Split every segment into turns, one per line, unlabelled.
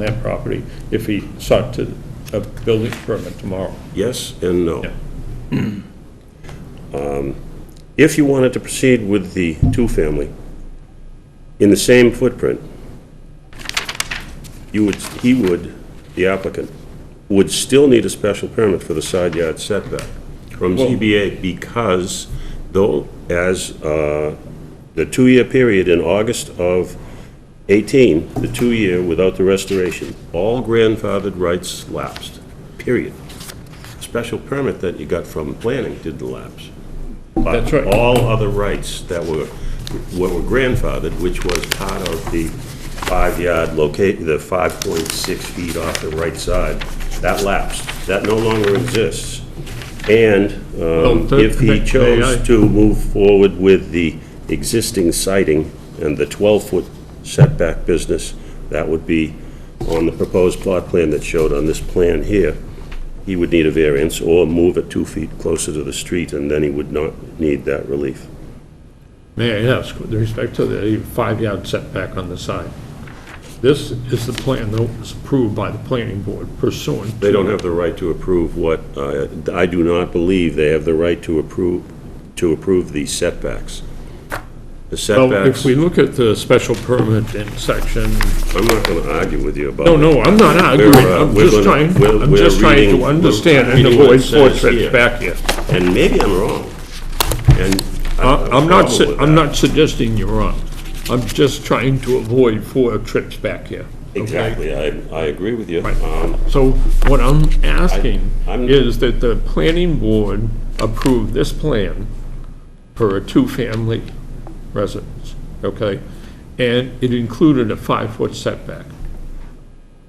on that property if he sought to, a building permit tomorrow.
Yes and no.
Yeah.
Um, If you wanted to proceed with the two-family in the same footprint, you would, he would, the applicant, would still need a special permit for the side yard setback from ZBA because though, as uh, the two-year period in August of 18, the two-year without the restoration, all grandfathered rights lapsed, period special permit that you got from planning didn't lapse. But
That's right.
All other rights that were, what were grandfathered, which was part of the five-yard locate, the 5.6 feet off the right side, that lapsed. That no longer exists. And um,
Don't
if he
think- may I?
chose to move forward with the existing siding and the 12-foot setback business, that would be on the proposed plot plan that showed on this plan here, he would need a variance or move it two feet closer to the street, and then he would not need that relief.
May I ask, with respect to the five-yard setback on the side, this is the plan that was approved by the planning board pursuant to...
They don't have the right to approve what, uh, I do not believe they have the right to approve, to approve the setbacks. The
Well, if
setbacks,
we look at the special permit in section,
I'm not going to argue with you about
no, no, I'm not arguing,
We're, uh,
I'm
we're
just
gonna-
trying,
we're-
I'm
we're
just trying
reading-
to
we're
understand and
reading what
avoid
it says
portraits
here.
back here.
And maybe I'm wrong. And I don't have
I-
a
Uh, I'm not,
problem
su-
with
I'm
that.
not suggesting you're wrong. I'm just trying to avoid four trips back here. okay?
Exactly, I, I agree with you.
Right.
Um,
So what I'm asking
I- I'm-
is that the planning board approve this plan for a two-family residence, okay? And it included a five-foot setback.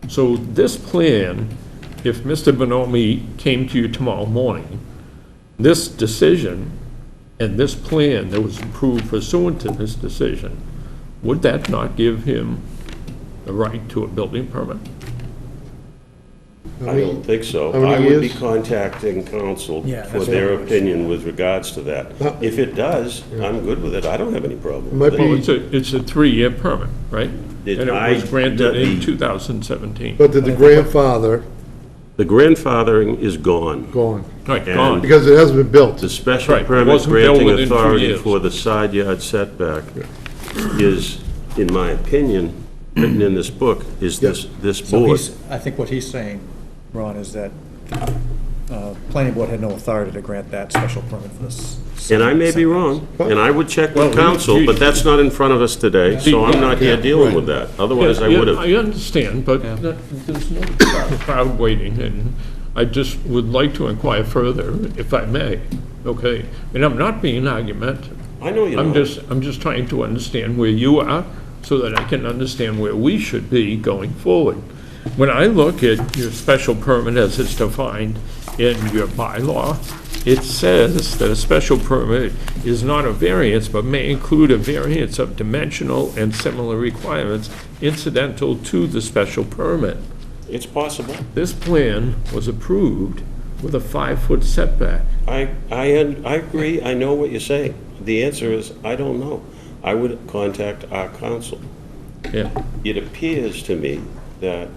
So this plan, if Mr. Bonomi came to you tomorrow morning, this decision and this plan that was approved pursuant to this decision, would that not give him the right to a building permit?
I don't think so.
many
I would be
years?
contacting council
Yeah,
for
that's
their
what-
opinion with regards to that.
Huh?
If it does, I'm good with it, I don't have any problem
Uh, Might
with
be-
Well,
it.
it's a, it's a three-year permit, right? And
Did
it
I-
was granted in
the-
2017.
But did the grandfather
The grandfathering is gone.
go on?
Right,
and-
gone.
Because it hasn't been built.
The special
Right, it
permit
wasn't built
granting
within two
authority
years.
for the side yard setback is, in my opinion, written in this book, is this, this
So
board.
he's, I think what he's saying, Ron, is that uh, planning board had no authority to grant that special permit for this.
And I may be wrong, and I would check
Well,
with
you-
council,
you-
but that's not in front of us today, so I'm not here dealing with that. Otherwise, I
Yeah,
would have.
I understand, but that- there's no crowd- crowd waiting, and I just would like to inquire further, if I may, okay? And I'm not being argumentative.
I know you
I'm
know.
just, I'm just trying to understand where you are, so that I can understand where we should be going forward. When I look at your special permit as it's defined in your bylaw, it says that a special permit is not a variance, but may include a variance of dimensional and similar requirements incidental to the special permit.
It's possible.
This plan was approved with a five-foot setback.
I, I, un- I agree, I know what you're saying. The answer is, I don't know. I would contact our council.
Yeah,
It appears to me that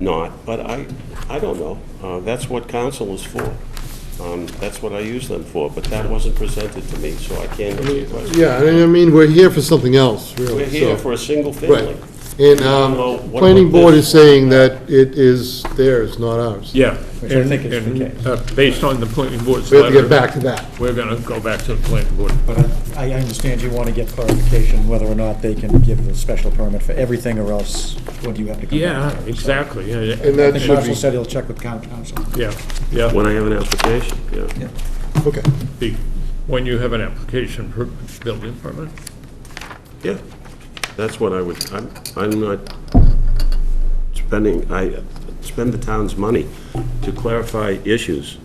not, but I, I don't know. Uh, That's what council is for. Um, That's what I use them for, but that wasn't presented to me, so I can't answer your question.
Yeah, and I mean, we're here for something else, really.
We're here
so-
for a single
Right.
family.
And,
Well,
um,
what
planning
about this?
board is saying that it is theirs, not ours.
yeah.
Which I think is the
And- and,
case.
uh, Based on the planning board's
We
letter.
have to get back to that.
We're gonna go back to the planning board.
But I I understand you want to get clarification whether or not they can give the special permit for everything, or else what do you have to come
Yeah,
back to?
exactly, yeah, yeah,
And
I
that
think
should
Marshall
be,
said he'll check with town council.
yeah, yeah.
When I have an application, yeah.
okay.
The- When you have an application for building permit,
Yeah, that's what I would, I'm, I'm not spending, I spend the town's money to clarify issues.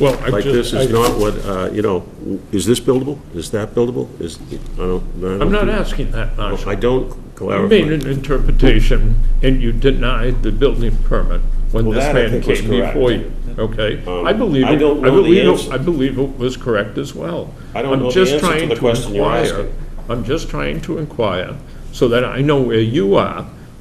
well, I
Like this
just,
is
I-
not what, uh, you know, is this buildable? Is that buildable? Is, I don't, I don't.
I'm not asking that, Marshall.
I don't
You made
clarify.
an interpretation, and you denied the building permit when
Well,
this
that I
man
think was
came
correct.
before you, okay?
Um,
I believe, it-
I
I
don't know the
believe, it-
answer.
I believe it was correct as well.
I don't
I'm
know the
just
answer to
trying
the question you're
inquire-
asking.
I'm just trying to inquire, so that I know where you are,